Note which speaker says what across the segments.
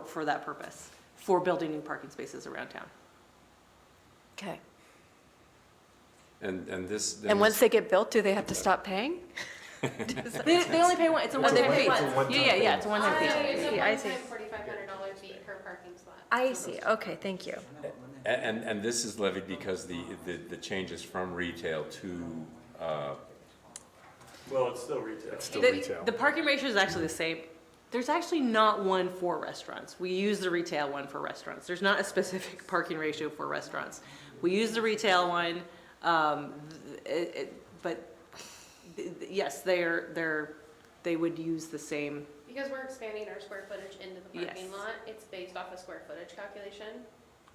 Speaker 1: for, for that purpose, for building new parking spaces around town.
Speaker 2: Okay.
Speaker 3: And, and this. then
Speaker 2: And once
Speaker 3: this-
Speaker 2: they get built, do they have to stop paying?
Speaker 1: They, they only pay one, it's a one-time
Speaker 2: one-
Speaker 1: fee.
Speaker 2: it's a
Speaker 1: Yeah, yeah, yeah, it's a one-time fee.
Speaker 4: It's a
Speaker 2: Yeah, I see.
Speaker 4: one-time forty-five hundred dollar fee per parking slot.
Speaker 2: I see, okay, thank you.
Speaker 3: a- And, and this is levied because the, the, the change is from retail to, uh,
Speaker 5: Well, it's still retail.
Speaker 6: It's still
Speaker 1: The-
Speaker 6: retail.
Speaker 1: The parking ratio is actually the same. There's actually not one for restaurants. We use the retail one for restaurants. There's not a specific parking ratio for restaurants. We use the retail one, um, th- it, it, but, th- th- yes, they're, they're, they would use the same,
Speaker 4: Because we're expanding our square footage into the parking
Speaker 1: Yes.
Speaker 4: lot, it's based off a square footage calculation.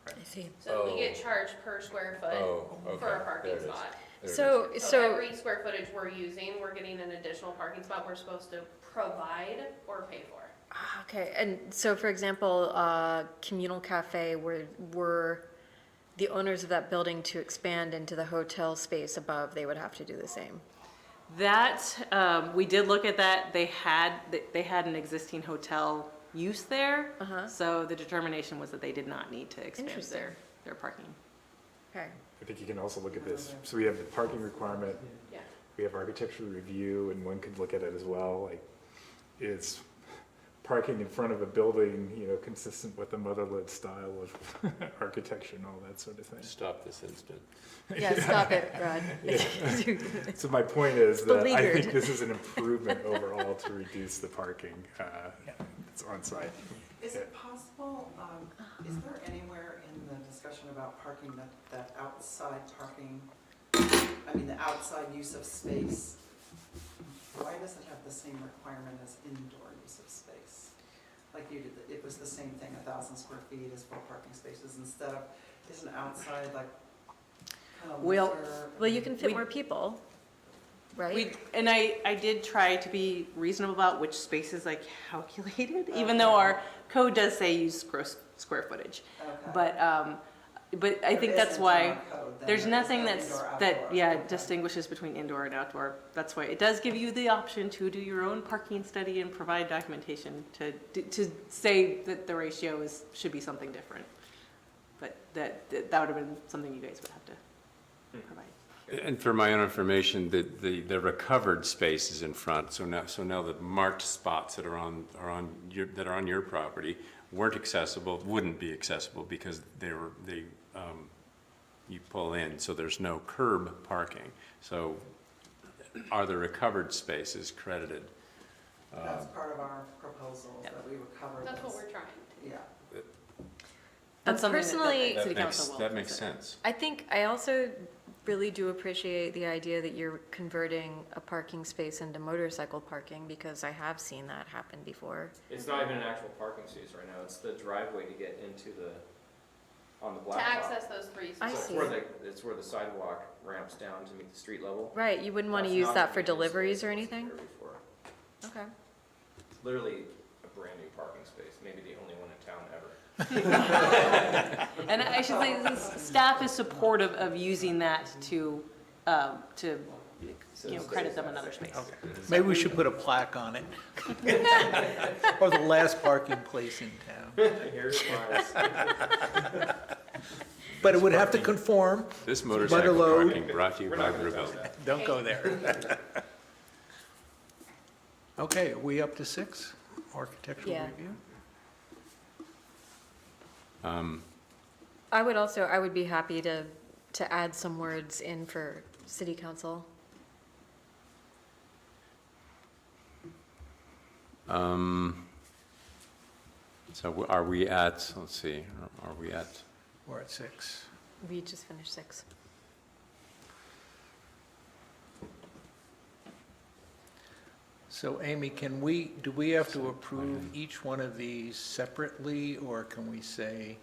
Speaker 2: I see.
Speaker 4: So
Speaker 3: Oh.
Speaker 4: we get charged per square
Speaker 3: oh,
Speaker 4: foot
Speaker 3: okay.
Speaker 4: for our
Speaker 3: there
Speaker 4: parking
Speaker 3: it is.
Speaker 4: spot.
Speaker 3: There it is.
Speaker 2: So,
Speaker 4: So
Speaker 2: so,
Speaker 4: every square footage we're using, we're getting an additional parking spot we're supposed to provide or pay for.
Speaker 2: okay, and so for example, uh, communal cafe, were, were the owners of that building to expand into the hotel space above, they would have to do the same?
Speaker 1: That, um, we did look at that, they had, they- they had an existing hotel use there.
Speaker 2: Uh-huh.
Speaker 1: So the determination was that they did not need to expand
Speaker 2: Interesting.
Speaker 1: their, their parking.
Speaker 2: Okay.
Speaker 6: I think you can also look at this. So we have the parking requirement,
Speaker 4: Yeah.
Speaker 6: we have architectural review, and one could look at it as well, like, is parking in front of a building, you know, consistent with the motherlode style of architecture and all that sort of thing?
Speaker 3: Stop this instant.
Speaker 2: Yeah, stop it, Rod.
Speaker 6: So my point is that I think
Speaker 2: Beleaguered.
Speaker 6: this is an improvement overall to reduce the parking, uh, that's on site.
Speaker 7: Is it possible, um, is there anywhere in the discussion about parking that, that outside parking, I mean, the outside use of space, why does it have the same requirement as indoor use of space? Like you did, it was the same thing, a thousand square feet is four parking spaces instead of, isn't outside like kind of
Speaker 1: Well-
Speaker 7: winter?
Speaker 2: Well, you can fit
Speaker 1: We-
Speaker 2: more people, right? Um,
Speaker 1: We, and I, I did try to be reasonable about which spaces I calculated, even though our code does say use gross square footage.
Speaker 7: Okay.
Speaker 1: But, um, but I
Speaker 7: There
Speaker 1: think that's
Speaker 7: isn't
Speaker 1: why,
Speaker 7: on code
Speaker 1: there's
Speaker 7: then, there is
Speaker 1: nothing
Speaker 7: no
Speaker 1: that's,
Speaker 7: indoor,
Speaker 1: that,
Speaker 7: outdoor.
Speaker 1: yeah,
Speaker 7: Okay.
Speaker 1: distinguishes between indoor and outdoor. That's why, it does give you the option to do your own parking study and provide documentation to, to say that the ratio is, should be something different. But that, that would have been something you guys would have to provide.
Speaker 3: And for my own information, the, the, the recovered space is in front, so now, so now the marked spots that are on, are on your, that are on your property weren't accessible, wouldn't be accessible because they were, they, um, you pull in, so there's no curb parking. So are the recovered spaces credited?
Speaker 7: That's part of our proposal,
Speaker 1: Yeah.
Speaker 7: that we would cover
Speaker 4: That's what
Speaker 7: this,
Speaker 4: we're trying.
Speaker 7: yeah.
Speaker 1: That's something that- that
Speaker 2: Personally-
Speaker 1: the city
Speaker 3: That makes-
Speaker 1: council will
Speaker 3: That makes
Speaker 1: consider.
Speaker 3: sense.
Speaker 2: I think, I also really do appreciate the idea that you're converting a parking space into motorcycle parking, because I have seen that happen before.
Speaker 8: It's not even an actual parking space right now, it's the driveway to get into the, on the
Speaker 4: To
Speaker 8: blacktop.
Speaker 4: access those three
Speaker 2: I
Speaker 4: spots.
Speaker 8: So it's
Speaker 2: see.
Speaker 8: where the, it's where the sidewalk ramps down to meet the street level.
Speaker 2: Right, you wouldn't want to
Speaker 8: That's
Speaker 2: use
Speaker 8: not
Speaker 2: that for
Speaker 8: gonna be a space
Speaker 2: deliveries or
Speaker 8: that wasn't
Speaker 2: anything?
Speaker 8: there before.
Speaker 2: Okay.
Speaker 8: It's Literally a brand new parking space, maybe the only one in town ever.
Speaker 1: And I should say, this staff is supportive of using that to, um, to, you know, credit them another space.
Speaker 9: Maybe we should put a plaque on it. Or the last parking place in town.
Speaker 8: Here's my,
Speaker 9: But it would have to conform.
Speaker 3: This motorcycle
Speaker 9: Butterload.
Speaker 3: parking brought to you by Rubel.
Speaker 9: Don't go there. Okay, are we up to six? Architectural
Speaker 2: Yeah.
Speaker 9: review?
Speaker 2: I would also, I would be happy to, to add some words in for city council.
Speaker 3: Um, So are we at, let's see, are we at,
Speaker 9: We're at six.
Speaker 2: We just finished six.
Speaker 9: So Amy, can we, do we have to approve each one of these separately? Or can we say,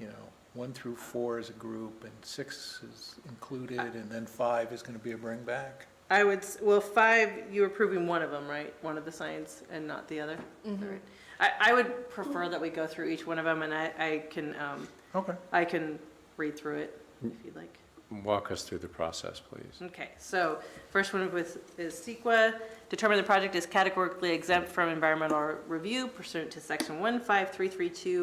Speaker 9: you know, one through four is a group and six is included and then five is going to be a bring back?
Speaker 1: I would, s- well, five, you're approving one of them, right? One of the signs and not the other? Alright. I, I would prefer that we go through each one of them and I, I can, um,
Speaker 9: Okay.
Speaker 1: I can read through it if you'd like.
Speaker 3: Well, walk us through the process, please.
Speaker 1: Okay, so first one with, is CEQA. Determine the project is categorically exempt from environmental review pursuant to section one five three three two